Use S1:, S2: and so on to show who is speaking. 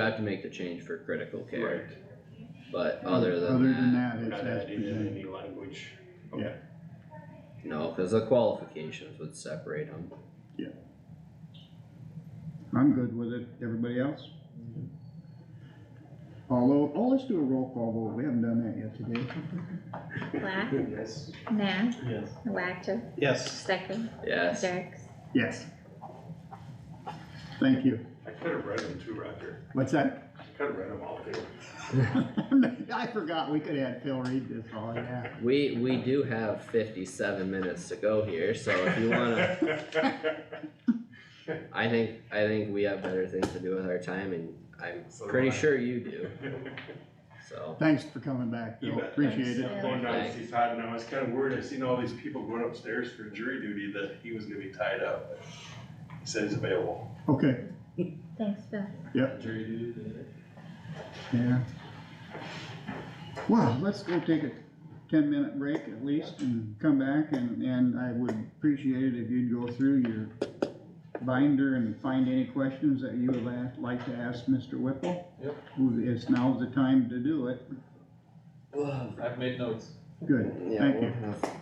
S1: I have to make the change for critical care,
S2: Right.
S1: but other
S3: Other
S1: than
S3: than
S1: that,
S3: that,
S2: We're
S3: it's
S2: not
S3: as
S2: adding in
S3: presented.
S2: any language.
S3: Yeah.
S2: Okay.
S1: no, cause the qualifications would separate them.
S3: I'm good with it. Everybody else? Although, oh, let's do a roll call vote. We haven't done that yet today.
S4: Black,
S2: Yes.
S4: Nah,
S2: Yes.
S4: Wactor,
S2: Yes.
S4: Stecker,
S1: Yes,
S4: Jerks.
S3: Yes. Thank you.
S2: I could have read them too, Roger.
S3: What's that?
S2: I could have read them all too.
S3: I forgot we could add Phil read this all, yeah.
S1: we, we do have fifty-seven minutes to go here, so if you wanna, I think, I think we have better things to do with our time and I'm
S2: So do
S1: pretty
S2: I.
S1: sure you do, so.
S3: Thanks for coming back,
S2: You
S3: Phil.
S2: bet.
S3: Appreciate it.
S4: Thanks.
S2: I'm going down to see Todd and I was kind of worried. I seen all these people going upstairs for jury duty that he was gonna be tied up. but He said he's available.
S3: Okay,
S4: Thanks, Phil.
S2: Jury duty?
S3: yeah. Well, let's go take a ten-minute break at least and come back and, and I would appreciate it if you'd go through your binder and find any questions that you would la- like to ask Mr. Whipple.
S5: Yep.
S3: Who is, now's the time to do it.
S5: I've made notes.
S3: Good,
S1: Yeah,
S3: Thank
S1: we'll
S3: you.
S1: have